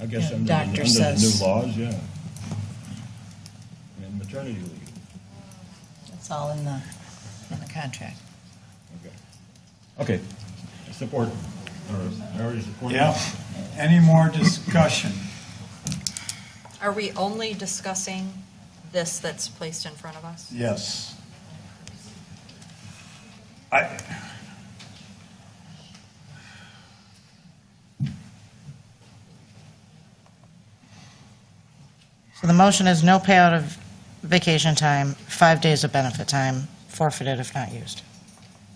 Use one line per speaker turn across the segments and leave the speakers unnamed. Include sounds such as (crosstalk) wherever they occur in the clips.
I guess
Yeah,
under, the-
doctor
under the
says-
new laws, yeah. And maternity leave,
It's all in the, in the contract.
okay. Okay, I support, or I already support.
Yeah. Any more discussion?
Are we only discussing this that's placed in front of us?
Yes. I.
So the motion is no payout of vacation time, five days of benefit time, forfeited if not used.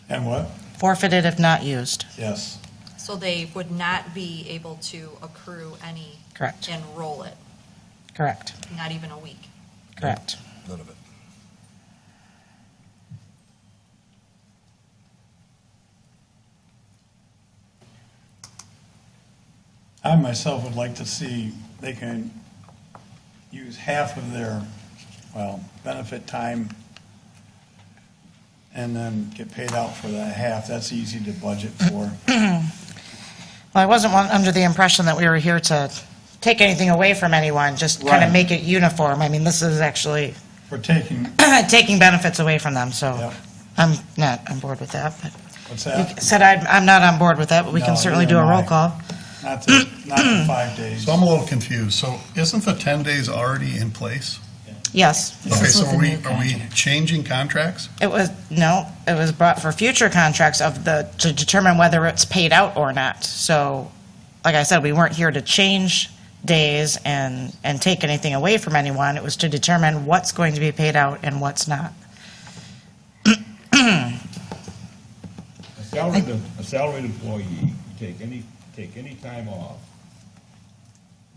And what?
Forfeited if not used.
Yes.
So they would not be able to accrue any,
Correct,
enroll it,
correct,
not even a week.
correct.
None of it.
I myself would like to see they can use half of their, well, benefit time and then get paid out for that half. That's easy to budget for.
Well, I wasn't one- under the impression that we were here to take anything away from anyone, just kind
Right.
of make it uniform. I mean, this is actually (clears throat)
We're taking,
taking benefits away from them, so
Yep.
I'm not on board with that. but-
what's
You
that?
said I'm, I'm not on board with that, but we
Uh, No,
can certainly do
neither
a
am
roll
I.
call.
Not the, not the five days.
So I'm a little confused. So isn't the 10 days already in place?
Yes.
Okay,
is
so
with
are
the
we,
new
are we changing contracts?
It was, no, it was brought for future contracts of the, to determine whether it's paid out or not. So, like I said, we weren't here to change days and, and take anything away from anyone. It was to determine what's going to be paid out and what's not.
A salaried, a salaried employee can take any, take any time off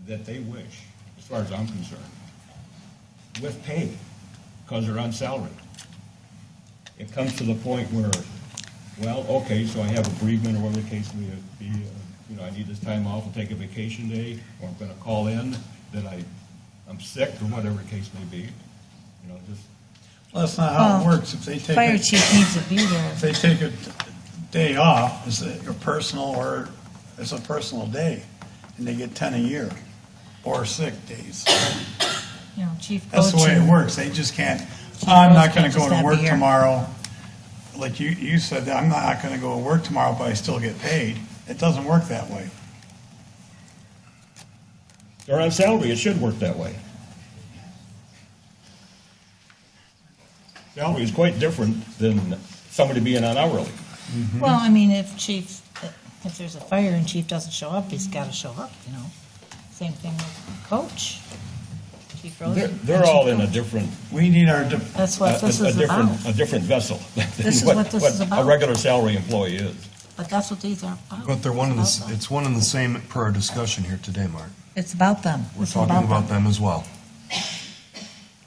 that they wish, as far as I'm concerned, with pay, because they're on salary. It comes to the point where, well, okay, so I have a bereavement or whatever the case may be, uh, you know, I need this time off, I'll take a vacation day, or I'm gonna call in, that I, I'm sick, or whatever the case may be, you know, just,
That's not how
Oh.
it works. If they take.
Fire
it-
chief needs to be there.
If they take a day off, it's a your personal or it's a personal day, and they get ten a year or sick days.
You know, chief
That's the way it
coaching.
works. They just can't. I'm not going to go
Just not
to
be
work
here."
tomorrow. Like you, you said, that I'm not going to go to work tomorrow, but I still get paid. It doesn't work that way.
they're on salary, it should work that way. Salary is quite different than somebody being on hourly.
Well, I mean, if chief, if there's a fire and chief doesn't show up, he's gotta show up, you know? Same thing with coach, chief
They're,
Rosen.
they're all in a different,
We need our, de-
That's
a
what this
a
is about,
different, a different vessel. (laughs) than
This is what this is about.
A regular salary employee is.
but that's what these are about.
But they're one and the,
It's
s-
about them.
it's one and the same per our discussion here today, Mark.
It's about them.
We're talking about them as well.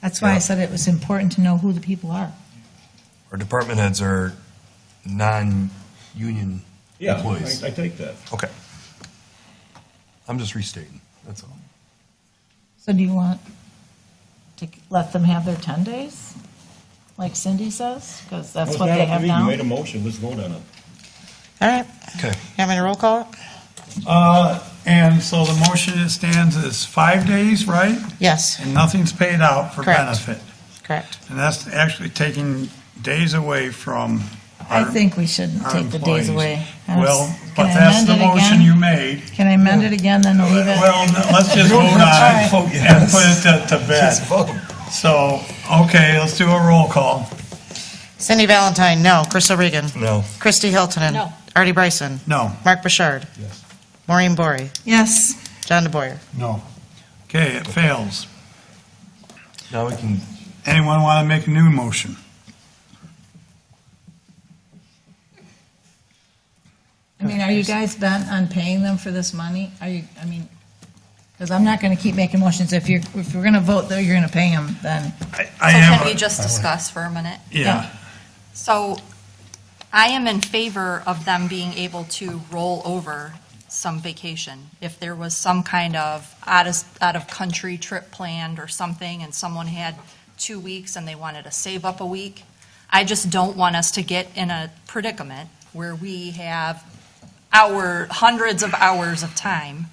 That's why I
Yeah.
said it was important to know who the people are.
Our department heads are non-union
Yeah,
employees.
I, I take that.
Okay. I'm just restating, that's all.
So do you want,
To let them have their ten days, like Cindy says, because
Well,
that's
it's
what
not
they
up to
have
me. You made
now.
a motion, let's vote on it.
All right,
Okay,
you want me to roll call it?
uh, and so the motion that stands is five days, right?
Yes,
And nothing's paid out for
Correct.
benefit.
correct.
And that's actually taking days away from.
I
our-
think we shouldn't
our
take the days
employees.
away. I was-
Well, but
can I
that's the
amend it
motion
again?
you made.
Can I amend it again, then leave it?
Well, no, let's just vote
Alright.
on it and put it to- to bed.
just vote.
So, okay, let's do a roll call.
Cindy Valentine, no. Crystal Regan.
No.
Christy Hiltonen.
No.
Artie Bryson.
No.
Mark Bouchard.
Yes.
Maureen Bory.
Yes,
John DeBoyer.
No.
Okay, it fails.
Now we can,
Anyone want to make a new motion?
I mean, are you guys bent on paying them for this money? Are you, I mean, because I'm not going to keep making motions. If you're, if we're going to vote, though, you're going to pay them, then.
I
So
I
can we
am,
just discuss for a minute?
yeah,
So I am in favor of them being able to roll over some vacation. If there was some kind of out of, out of country trip planned or something and someone had two weeks and they wanted to save up a week, I just don't want us to get in a predicament where we have our, hundreds of hours of time